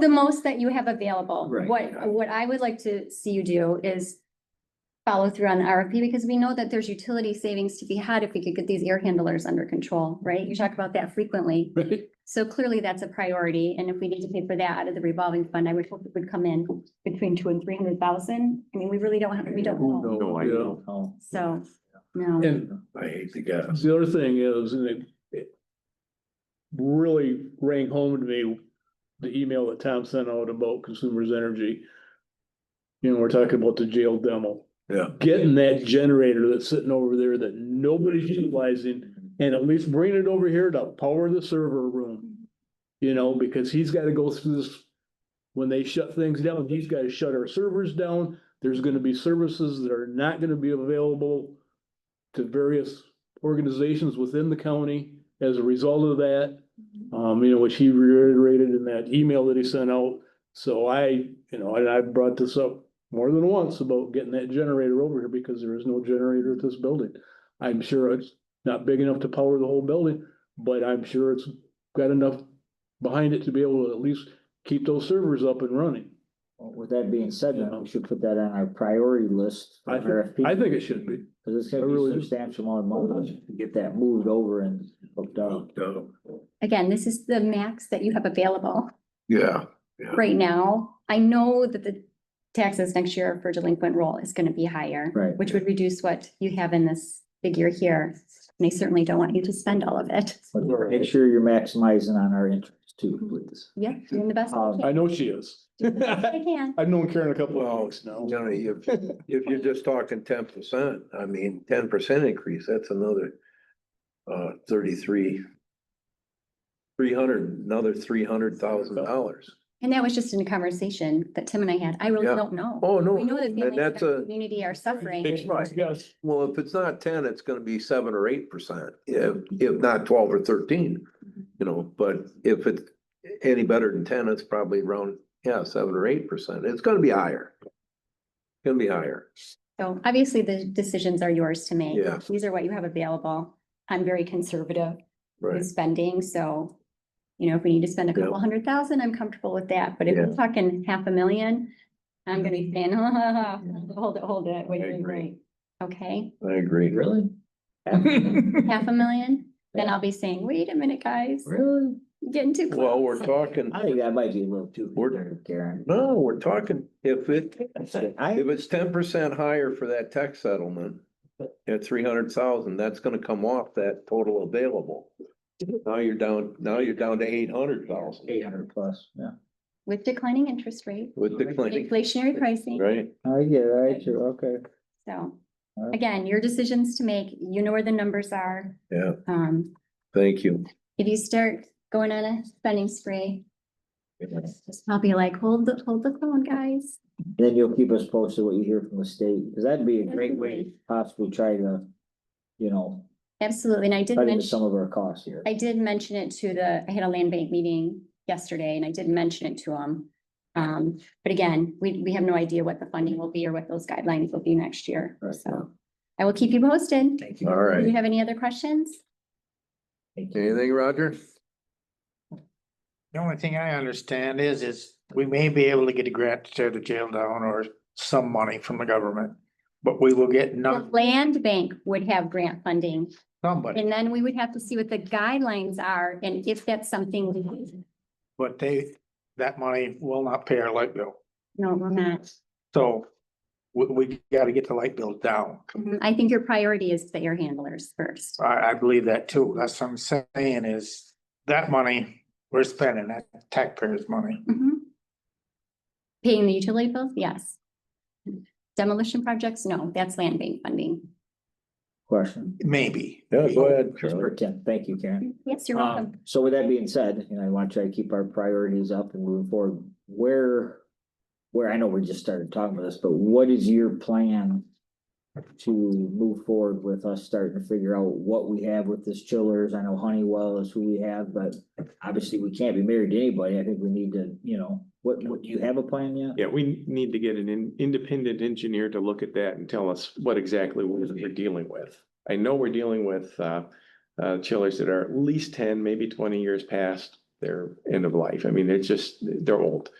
The most that you have available. Right. What, what I would like to see you do is follow through on the RFP because we know that there's utility savings to be had if we could get these air handlers under control, right? You talk about that frequently. Right? So clearly that's a priority. And if we need to pay for that out of the revolving fund, I would hope it would come in between two and three hundred thousand. I mean, we really don't, have- we don't know. No, I Yeah. don't. So, no. And I hate to guess. the other thing is, and it, it really rang home to me, the email that Tom sent out about consumers energy. You know, we're talking about the jail demo. Yeah. Getting that generator that's sitting over there that nobody's utilizing and at least bringing it over here to power the server room. You know, because he's gotta go through this, when they shut things down, he's gotta shut our servers down. There's gonna be services that are not gonna be available to various organizations within the county as a result of that. Um, you know, which he reiterated in that email that he sent out. So I, you know, and I brought this up more than once about getting that generator over here because there is no generator at this building. I'm sure it's not big enough to power the whole building, but I'm sure it's got enough behind it to be able to at least keep those servers up and running. Well, With that being said, then we should put that on our priority list. I on think, RFP, I think it should be. Cause it's I gonna really be do. substantial amount of money to get that moved over and hooked up. Again, this is the max that you have available. Yeah, right now, I know that the taxes next year for delinquent roll is gonna be higher. Right. Which would reduce what you have in this figure here, and I certainly don't want you to spend all of it. But Make sure you're maximizing on our interest too, Mhm. please. Yeah, doing the best Um, I know she is. I can. I've known Karen a couple of weeks now. Johnny, if, if you're just talking ten percent, I mean, ten percent increase, that's another uh, thirty-three, three hundred, another three hundred thousand dollars. And that was just in a conversation that Tim and I had. I really Yeah. don't know. Oh, no. We know that and families in That's our a, community are suffering. Right. Yes. well, if it's not ten, it's gonna be seven or eight percent, if, if not twelve or thirteen, you know, but if it's any better than ten, it's probably around, yeah, seven or eight percent. It's gonna be higher. Gonna be higher. So obviously, the decisions are yours to make. Yeah. These are what you have available. I'm very conservative. Right. with spending, so. You know, if we need to spend a Yeah. couple hundred thousand, I'm comfortable with that, but if we're talking half a million, I'm gonna be saying, hold it, hold it, wait, Mm-hmm. I wait, agree. wait. Okay, I agree. Really? half a million, then Yeah. I'll be saying, wait a minute, guys, Really? getting too close. Well, we're talking, I think that might be a little too. We're- conservative, Karen. no, we're talking, if it, I, if it's ten percent higher for that tax settlement. At three hundred thousand, that's gonna come off that total available. Now you're down, now you're down to eight hundred thousand eight hundred plus, yeah. With declining interest rate, with declining, inflationary pricing, right? I get it, I true, okay. so. Alright. Again, your decisions to make, you know where the numbers are, Yeah, um, thank you. if you start going on a spending spree, I'll be like, hold the, hold the phone, guys. Then you'll keep us posted what you hear from the state, cause that'd be a great way to possibly try to, you know, Absolutely, and I did cut into mention. some of our costs here. I did mention it to the, I had a land bank meeting yesterday and I did mention it to them. Um, but again, we, we have no idea what the funding will be or what those guidelines will be next year, Right. so. I will keep you posted. Thank Do you All right. have any other questions? Anything, Roger? The only thing I understand is, is we may be able to get a grant to tear the jail down or some money from the government. But we will get The none, land bank would have grant funding somebody, and then we would have to see what the guidelines are and if that's something. we- but they, that money will not pay our light bill. No, we're not. So we, we gotta get the light bill down. Mhm. I think your priority is the air handlers first. I, I believe that too. That's what I'm saying is that money we're spending, that taxpayers' money. Mhm. Paying the utility bills, yes. Demolition projects, no, that's land bank funding. Question. Maybe. Yeah, go ahead, Just for Charlie. Tim, thank you, Karen. Yes, you're Um, welcome. So with that being said, you know, I want to try to keep our priorities up and moving forward, where, where, I know we just started talking about this, but what is your plan? To move forward with us starting to figure out what we have with this chillers, I know Honeywell is who we have, but obviously we can't be married to anybody, I think we need to, you know, what, what, do you have a plan yet? Yeah, we need to get an in- independent engineer to look at that and tell us what exactly we're we're dealing with. I know we're dealing with uh, uh, chillers that are at least ten, maybe twenty years past their end of life. I mean, it's just, they're old.